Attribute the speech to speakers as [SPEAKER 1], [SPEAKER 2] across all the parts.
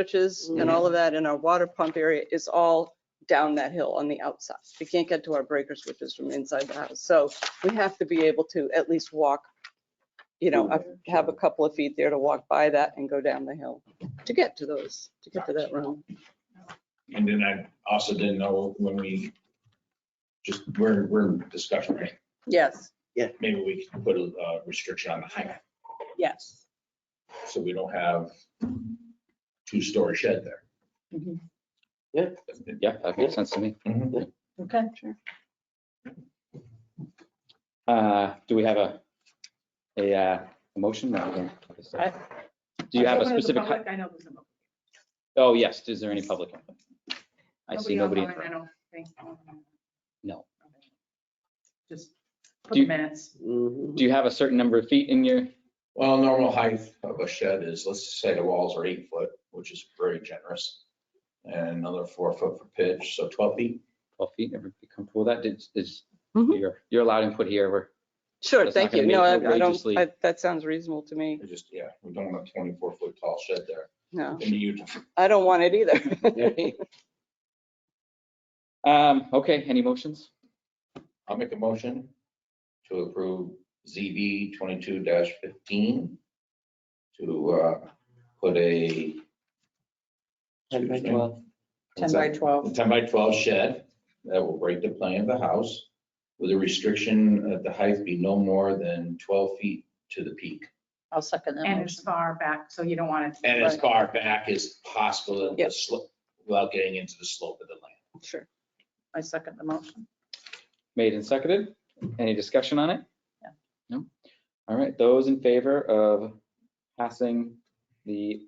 [SPEAKER 1] switches and all of that in our water pump area is all down that hill on the outside. We can't get to our breaker switches from inside the house. So we have to be able to at least walk, you know, up- have a couple of feet there to walk by that and go down the hill to get to those, to get to that room.
[SPEAKER 2] And then I also didn't know when we, just, we're, we're in discussion, right?
[SPEAKER 1] Yes,
[SPEAKER 2] Maybe we can put a uh, restriction on the height,
[SPEAKER 1] yes.
[SPEAKER 2] so we don't have two-story shed there.
[SPEAKER 3] Yeah, that makes sense to me.
[SPEAKER 2] Mhm.
[SPEAKER 1] Okay, sure.
[SPEAKER 3] Uh, Do we have a, a uh, a motion? No, we don't.
[SPEAKER 1] I-
[SPEAKER 3] Do you have a
[SPEAKER 4] Open to the
[SPEAKER 3] specific, hi-
[SPEAKER 4] public? I know there's no. public.
[SPEAKER 3] oh, yes, is there any public? input? I see nobody. in the
[SPEAKER 4] online, I
[SPEAKER 3] room.
[SPEAKER 4] don't think.
[SPEAKER 3] No.
[SPEAKER 4] Just
[SPEAKER 3] Do
[SPEAKER 4] for the
[SPEAKER 3] you-
[SPEAKER 4] minutes.
[SPEAKER 5] Mm-hmm.
[SPEAKER 3] Do you have a certain number of feet in your,
[SPEAKER 2] Well, normal height of a shed is, let's just say the walls are eight foot, which is very generous. And another four foot for pitch, so 12 feet.
[SPEAKER 3] 12 feet? Everybody comfortable with that? Did- Is,
[SPEAKER 1] Mhm.
[SPEAKER 3] you're, you're allowed input here. We're,
[SPEAKER 1] Sure,
[SPEAKER 3] That's
[SPEAKER 1] thank
[SPEAKER 3] not
[SPEAKER 1] you.
[SPEAKER 3] gonna
[SPEAKER 1] No, I
[SPEAKER 3] make
[SPEAKER 1] I don't,
[SPEAKER 3] outrageously-
[SPEAKER 1] I- that sounds reasonable to me.
[SPEAKER 2] We just, yeah, we don't want a 24-foot tall shed there.
[SPEAKER 1] No,
[SPEAKER 2] In Utah.
[SPEAKER 1] I don't want it either.
[SPEAKER 3] Um, okay, any motions?
[SPEAKER 2] I'll make a motion to approve ZB twenty-two fifteen to uh, put a.
[SPEAKER 5] 10 by 12.
[SPEAKER 4] 10 by 12.
[SPEAKER 2] A Ten by twelve shed that will break the plane of the house with a restriction that the height be no more than twelve feet to the peak.
[SPEAKER 1] I'll second
[SPEAKER 4] And as far back, so you don't want it.
[SPEAKER 2] And as far back as possible in the
[SPEAKER 1] Yep.
[SPEAKER 2] slope, without getting into the slope of the land.
[SPEAKER 1] Sure.
[SPEAKER 4] I second the motion.
[SPEAKER 3] Made and seconded. Any discussion on it? No? All right, those in favor of passing the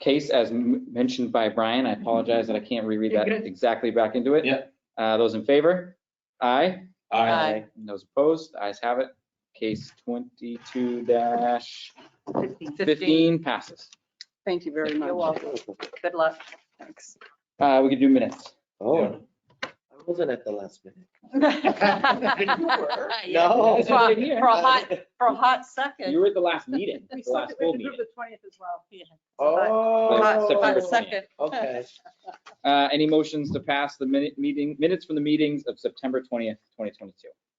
[SPEAKER 3] case as m- mentioned by Brian, I apologize that I can't reread
[SPEAKER 4] You're
[SPEAKER 3] that
[SPEAKER 4] good.
[SPEAKER 3] exactly back into it.
[SPEAKER 2] Yeah.
[SPEAKER 3] Uh, those in favor? Aye.
[SPEAKER 1] Aye.
[SPEAKER 3] And Those opposed? The Ayes have it. Case twenty-two dash fifteen passes.
[SPEAKER 1] Thank you very much.
[SPEAKER 3] You're
[SPEAKER 4] Good luck.
[SPEAKER 1] Thanks.
[SPEAKER 3] Uh, we can do minutes.
[SPEAKER 5] Oh, I wasn't at the last minute.
[SPEAKER 3] Yeah,
[SPEAKER 5] No.
[SPEAKER 3] that's what I hear.
[SPEAKER 4] For a hot-
[SPEAKER 1] for a hot
[SPEAKER 3] You
[SPEAKER 1] second.
[SPEAKER 3] were at the last meeting, the last full meeting.
[SPEAKER 4] The twentieth as well.
[SPEAKER 3] Hot-
[SPEAKER 5] Oh.
[SPEAKER 3] September hot second.
[SPEAKER 5] Okay.
[SPEAKER 3] Uh, Any motions to pass the minute, meeting, minutes from the meetings of September 20th, 2022?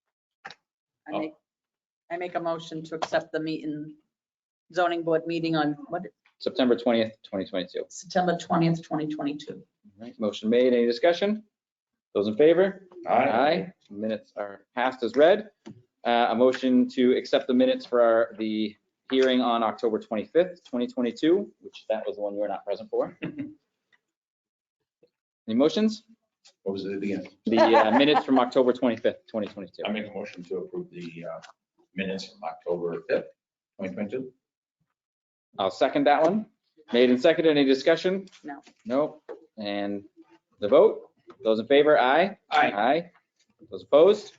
[SPEAKER 3] Oh.
[SPEAKER 6] I make, I make a motion to accept the meeting, zoning board meeting on, what,
[SPEAKER 3] September 20th, 2022.
[SPEAKER 6] September 20th, 2022.
[SPEAKER 3] All right, Motion made. Any discussion? Those in favor?
[SPEAKER 2] Aye.
[SPEAKER 3] Minutes are passed as read. Uh, A motion to accept the minutes for our- the hearing on October 25th, 2022, which that was the one you were not present for. Any motions?
[SPEAKER 2] What was it again?
[SPEAKER 3] The uh, minutes from October 25th, 2022.
[SPEAKER 2] I make a motion to approve the uh, minutes from October fifth, twenty twenty-two.
[SPEAKER 3] I'll second that one. Made and seconded. Any discussion?
[SPEAKER 6] No.
[SPEAKER 3] No. And the vote, those in favor, aye?
[SPEAKER 2] Aye.
[SPEAKER 3] Aye. Those opposed?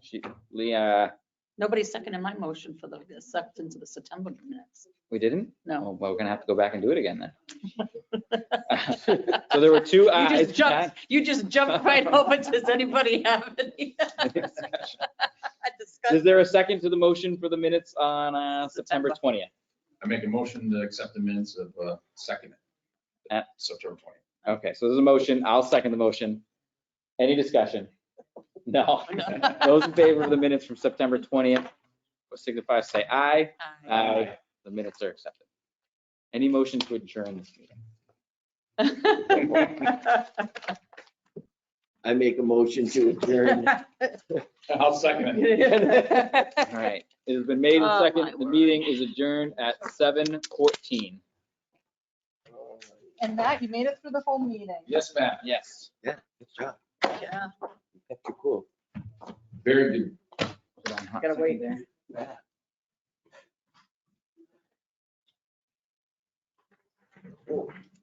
[SPEAKER 3] She, uh, Leah,
[SPEAKER 6] Nobody seconded my motion for the acceptance of the September minutes.
[SPEAKER 3] we didn't?
[SPEAKER 6] No.
[SPEAKER 3] Oh, Well, we're gonna have to go back and do it again then. So there were two uh,
[SPEAKER 6] You
[SPEAKER 3] ayes.
[SPEAKER 6] just jumped, you just jumped right over. Does anybody have any
[SPEAKER 3] Is
[SPEAKER 6] discussion?
[SPEAKER 3] there a second to the motion for the minutes on uh, September
[SPEAKER 6] September.
[SPEAKER 3] 20th?
[SPEAKER 2] I make a motion to accept the minutes of uh, second,
[SPEAKER 3] At-
[SPEAKER 2] September twenty.
[SPEAKER 3] Okay, so there's a motion. I'll second the motion. Any discussion? No. Those in favor of the minutes from September 20th, signify, say aye.
[SPEAKER 6] Aye.
[SPEAKER 3] Aye. The minutes are accepted. Any motion to adjourn this meeting?
[SPEAKER 5] I make a motion to adjourn.
[SPEAKER 2] I'll second it.
[SPEAKER 3] All right, it has been made and
[SPEAKER 6] Oh, my
[SPEAKER 3] seconded. The
[SPEAKER 6] word.
[SPEAKER 3] meeting is adjourned at 7:14.
[SPEAKER 4] And that, you made it through the whole meeting.
[SPEAKER 2] Yes, ma'am.
[SPEAKER 3] Yes.
[SPEAKER 5] Yeah, good job.
[SPEAKER 6] Yeah.
[SPEAKER 5] You kept it cool.
[SPEAKER 2] Very good.
[SPEAKER 3] Gotta wait there.
[SPEAKER 5] Yeah. Cool.